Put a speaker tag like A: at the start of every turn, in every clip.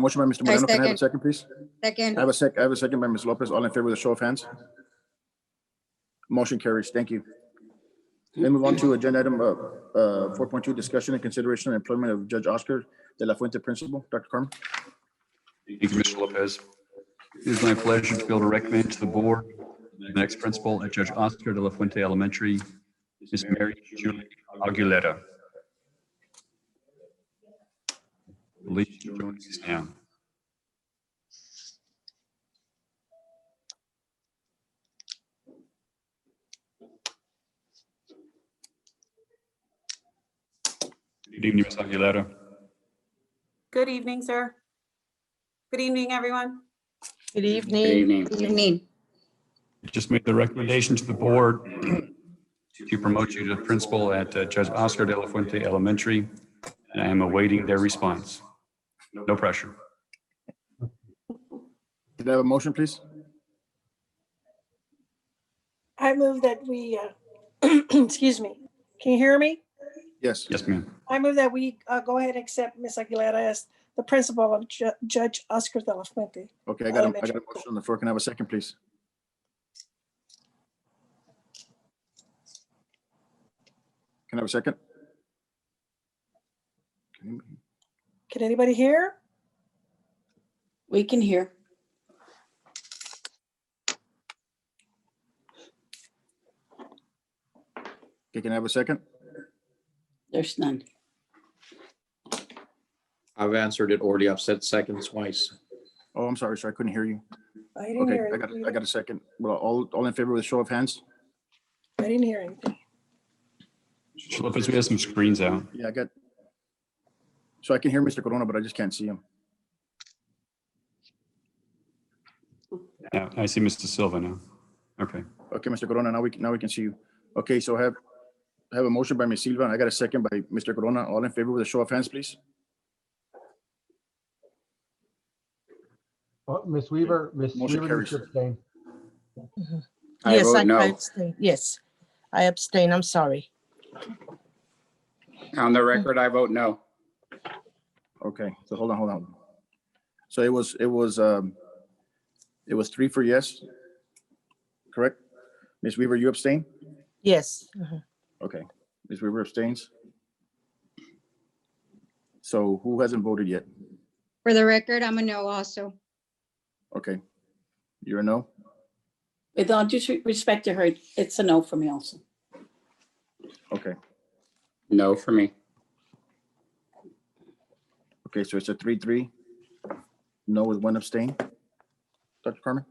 A: Motion by Mr.
B: I
A: Moreno. Can I have a
B: second.
A: second, please? I
B: Second,
A: have a sec, I have a second by Ms. Lopez. All in favor with a show of hands? Motion carries. Thank you. Then move on to agenda item, uh, uh, four point two, discussion and consideration of employment of Judge Oscar De La Fuente Principal. Dr. Carmen?
C: Thank you, Commissioner Lopez. It is my pleasure to be able to recommend to the board the next principal at Judge Oscar de la Fuente Elementary, Ms. Mary Julie Aguilera. I Believe she joins us now. Good evening, Ms. Aguilera.
D: Good evening, sir. Good evening, everyone.
E: Good
B: Good
E: evening.
B: evening. Good evening.
C: just made the recommendation to the board to promote you to principal at uh, Judge Oscar De La Fuente Elementary, and I am awaiting their response. No pressure.
A: Can I have a motion, please?
E: I move that we, uh, excuse me, can you hear me?
A: Yes.
C: Yes, ma'am.
E: I move that we uh, go ahead and accept Ms. Aguilera as the principal of Ju- Judge Oscar De La Fuente.
A: Okay, I got a, I got a
E: Elementary.
A: motion on the floor. Can I have a second, please? Can I have a second?
E: Can anybody hear?
F: We can hear.
A: Okay, Can I have a second?
F: There's none.
G: I've answered it already. I've said second twice.
A: Oh, I'm sorry, sir. I couldn't hear you.
E: I didn't
A: Okay,
E: hear.
A: I got,
E: anything.
A: I got a second. Well, all, all in favor with a show of hands?
E: I didn't hear anything.
C: Mr. Lopez, we have some screens out.
A: Yeah, I got. So I can hear Mr. Corona, but I just can't see him.
C: Yeah, I see Mr. Silva now. Okay.
A: Okay, Mr. Corona, now we, can now we can see you. Okay, so I have, I have a motion by Ms. Silva, and I got a second by Mr. Corona. All in favor with a show of hands, please?
H: Oh, Ms. Weaver, Ms.
A: Motion
H: Weaver needs to
A: carries.
H: abstain.
G: I
I: Yes, I
G: vote
I: I
G: no.
I: abstain. Yes, I abstain. I'm sorry.
G: On the record, I vote no.
A: Okay, so hold on, hold on. So it was, it was, um, it was three for yes, correct? Ms. Weaver, you abstain?
I: Yes. mhm.
A: Okay, Ms. Weaver abstains. So who hasn't voted yet?
B: for the record, I'm a no also.
A: Okay, you're a no?
F: With all due respect to her, it's a no for me also.
A: Okay,
G: No for me.
A: okay, so it's a three, three, no with one abstain? Dr. Carmen?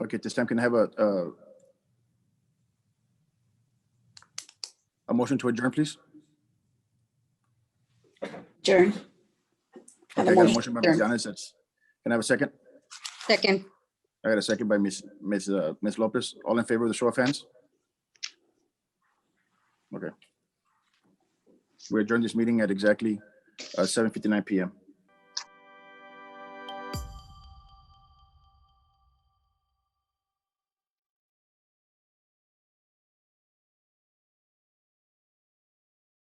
A: Okay, at this time can I have a, uh, a motion to adjourn, please?
F: Jern? Have
A: Okay,
F: a
A: I got a
F: motion.
A: motion by
F: Jern.
A: Ms. Yanez. that's- Can I have a second?
B: Second,
A: I got a second by Ms. Ms. uh, Ms. Lopez. All in favor of the show of hands? Okay. We adjourn this meeting at exactly uh, seven fifty-nine PM.